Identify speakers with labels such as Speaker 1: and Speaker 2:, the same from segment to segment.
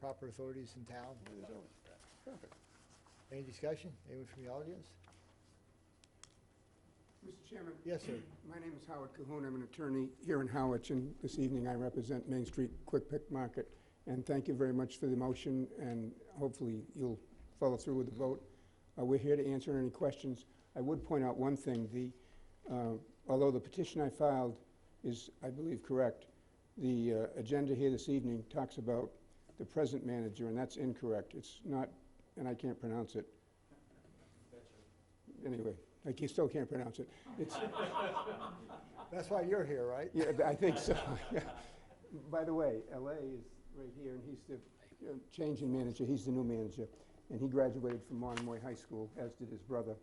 Speaker 1: proper authorities in town.
Speaker 2: It is over. Perfect.
Speaker 1: Any discussion? Anyone from the audience?
Speaker 3: Mr. Chairman,
Speaker 1: Yes, sir.
Speaker 3: my name is Howard Cahoon. I'm an attorney here in Howard, and this evening I represent Main Street Quick Pick Market. And thank you very much for the motion, and hopefully you'll follow through with the vote. Uh, We're here to answer any questions. I would point out one thing, the, uh, although the petition I filed is, I believe, correct, the uh, agenda here this evening talks about the present manager, and that's incorrect. It's not, and I can't pronounce it. Anyway, I can- still can't pronounce it. It's,
Speaker 1: That's why you're here, right?
Speaker 3: yeah, th- I think so. By the way, LA is right here, and he's the uh, change in manager, he's the new manager, and he graduated from Monomoy High School, as did his brother.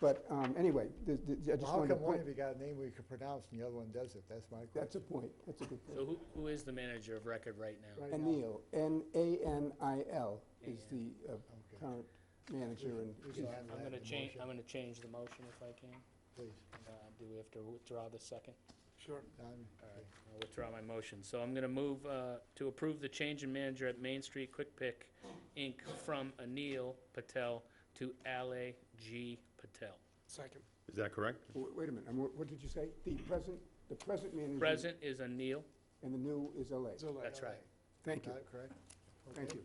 Speaker 3: But um, anyway, the- the- I
Speaker 1: Well,
Speaker 3: just
Speaker 1: How
Speaker 3: wanted to
Speaker 1: come one
Speaker 3: point,
Speaker 1: of you got a name we could pronounce and the other one doesn't? That's my question.
Speaker 3: that's a point, that's a good E
Speaker 4: So
Speaker 3: point.
Speaker 4: who, who is the manager of record right now?
Speaker 1: Right now.
Speaker 3: Anil, N-A-N-I-L, is the uh,
Speaker 1: Okay.
Speaker 3: current manager, and
Speaker 1: We can handle
Speaker 4: I'm
Speaker 1: that
Speaker 4: gonna
Speaker 1: in the
Speaker 4: change,
Speaker 1: motion,
Speaker 4: I'm gonna change the motion if I can.
Speaker 1: Please.
Speaker 4: Uh, Do we have to withdraw the second?
Speaker 2: Sure.
Speaker 1: Um,
Speaker 4: I'll withdraw my motion. So I'm gonna move uh, to approve the change in manager at Main Street Quick Pick, Inc. from Anil Patel to Ale G. Patel.
Speaker 2: Second.
Speaker 5: Is that correct?
Speaker 3: w- wait a minute, I'm- what did you say? The present, the present manager?
Speaker 4: Present is Anil.
Speaker 3: And the new is LA.
Speaker 4: That's right.
Speaker 3: Thank you,
Speaker 1: Not correct?
Speaker 3: thank
Speaker 1: Okay.
Speaker 3: you.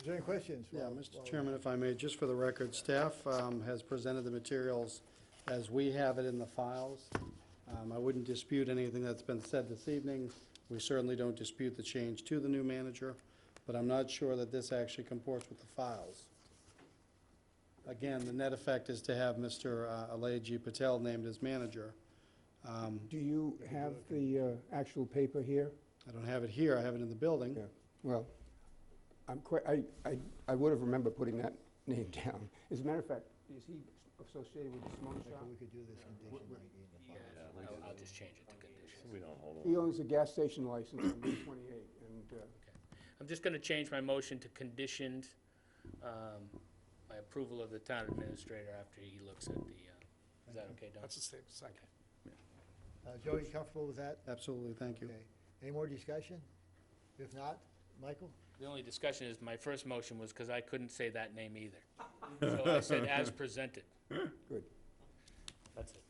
Speaker 1: Is there any questions?
Speaker 6: Yeah,
Speaker 1: while- while
Speaker 6: Mr.
Speaker 1: we-
Speaker 6: Chairman, if I may, just for the record, staff um, has presented the materials as we have it in the files. Um, I wouldn't dispute anything that's been said this evening. We certainly don't dispute the change to the new manager, but I'm not sure that this actually comports with the files. Again, the net effect is to have Mr. uh, Alay G. Patel named as manager. Um,
Speaker 3: Do you have the uh, actual paper here?
Speaker 6: I don't have it here, I have it in the building.
Speaker 3: Yeah, well, I'm quite, I, I, I would have remembered putting that name down. As a matter of fact, is he associated with the smoke
Speaker 1: Michael,
Speaker 3: shop?
Speaker 1: we could do this condition like in the policy.
Speaker 4: I'll- I'll just change it Mm-hmm. to conditions.
Speaker 5: We don't hold
Speaker 3: He owns a gas station license on Route 28, and, uh,
Speaker 4: I'm just gonna change my motion to conditioned, um, my approval of the town administrator after he looks at the, uh, is that okay, Don?
Speaker 2: the same, second.
Speaker 1: Uh, Joe, you comfortable with that?
Speaker 6: Absolutely, thank you.
Speaker 1: Okay. Any more discussion? If not, Michael?
Speaker 4: The only discussion is, my first motion was because I couldn't say that name either. So I said as presented.
Speaker 3: good.
Speaker 4: That's it.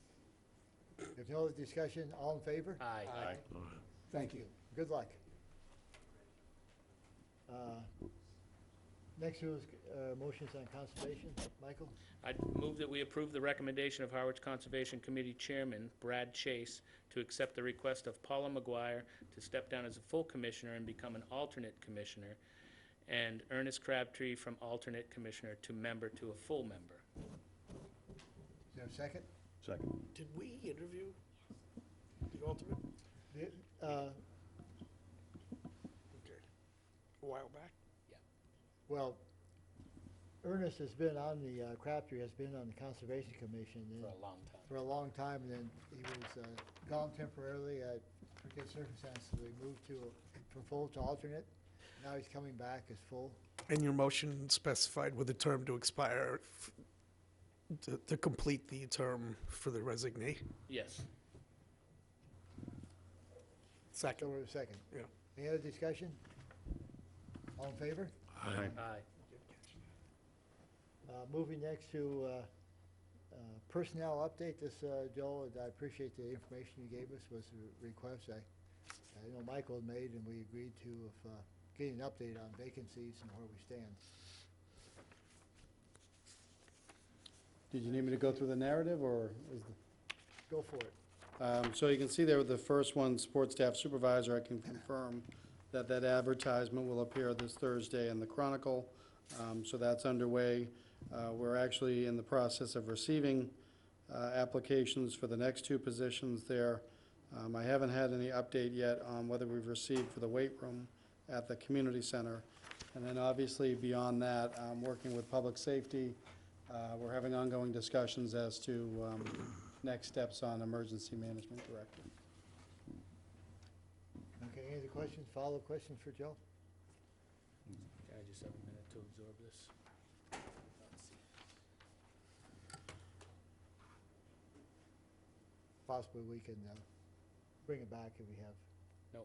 Speaker 1: If no other discussion, all in favor?
Speaker 4: Aye.
Speaker 5: Aye.
Speaker 3: Thank you.
Speaker 1: Good luck. Uh, Next was uh, motions on conservation. Michael?
Speaker 4: I move that we approve the recommendation of Harwich Conservation Committee Chairman Brad Chase to accept the request of Paula McGuire to step down as a full commissioner and become an alternate commissioner, and Ernest Crabtree from alternate commissioner to member to a full member.
Speaker 1: Is there a second?
Speaker 5: Second.
Speaker 2: Did we interview the ultimate
Speaker 1: The- uh,
Speaker 2: a while back?
Speaker 1: Well, Ernest has been on the, uh, Crabtree has been on the Conservation Commission and
Speaker 4: For a long time.
Speaker 1: for a long time, and then he was uh, gone temporarily, I forget circumstances, we moved to, from full to alternate. Now he's coming back as full.
Speaker 7: And your motion specified with a term to expire f- to, to complete the term for the resignee.
Speaker 4: Yes.
Speaker 1: So we're second.
Speaker 7: Yeah.
Speaker 1: Any other discussion? All in favor?
Speaker 5: Aye.
Speaker 4: Aye.
Speaker 1: Uh, Moving next to uh, uh, personnel update, this, uh, Joel, and I appreciate the information you gave us, was a request I, I know Michael had made, and we agreed to of uh, getting an update on vacancies and where we stand.
Speaker 6: Did you need me to go through the narrative, or is the...
Speaker 1: Go for it.
Speaker 6: Um, So you can see there, the first one, support staff supervisor, I can confirm that that advertisement will appear this Thursday in the Chronicle, Um, so that's underway. Uh, We're actually in the process of receiving uh, applications for the next two positions there. Um, I haven't had any update yet on whether we've received for the weight room at the community center. And then obviously beyond that, um, working with public safety, uh, we're having ongoing discussions as to um, next steps on emergency management director.
Speaker 1: Okay, any other questions, follow-up questions for Joe?
Speaker 4: Can I just have a minute to absorb this?
Speaker 1: Possibly we can uh, bring it back if we have.
Speaker 4: Uh,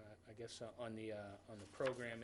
Speaker 4: I I guess, uh, on the, uh, on the program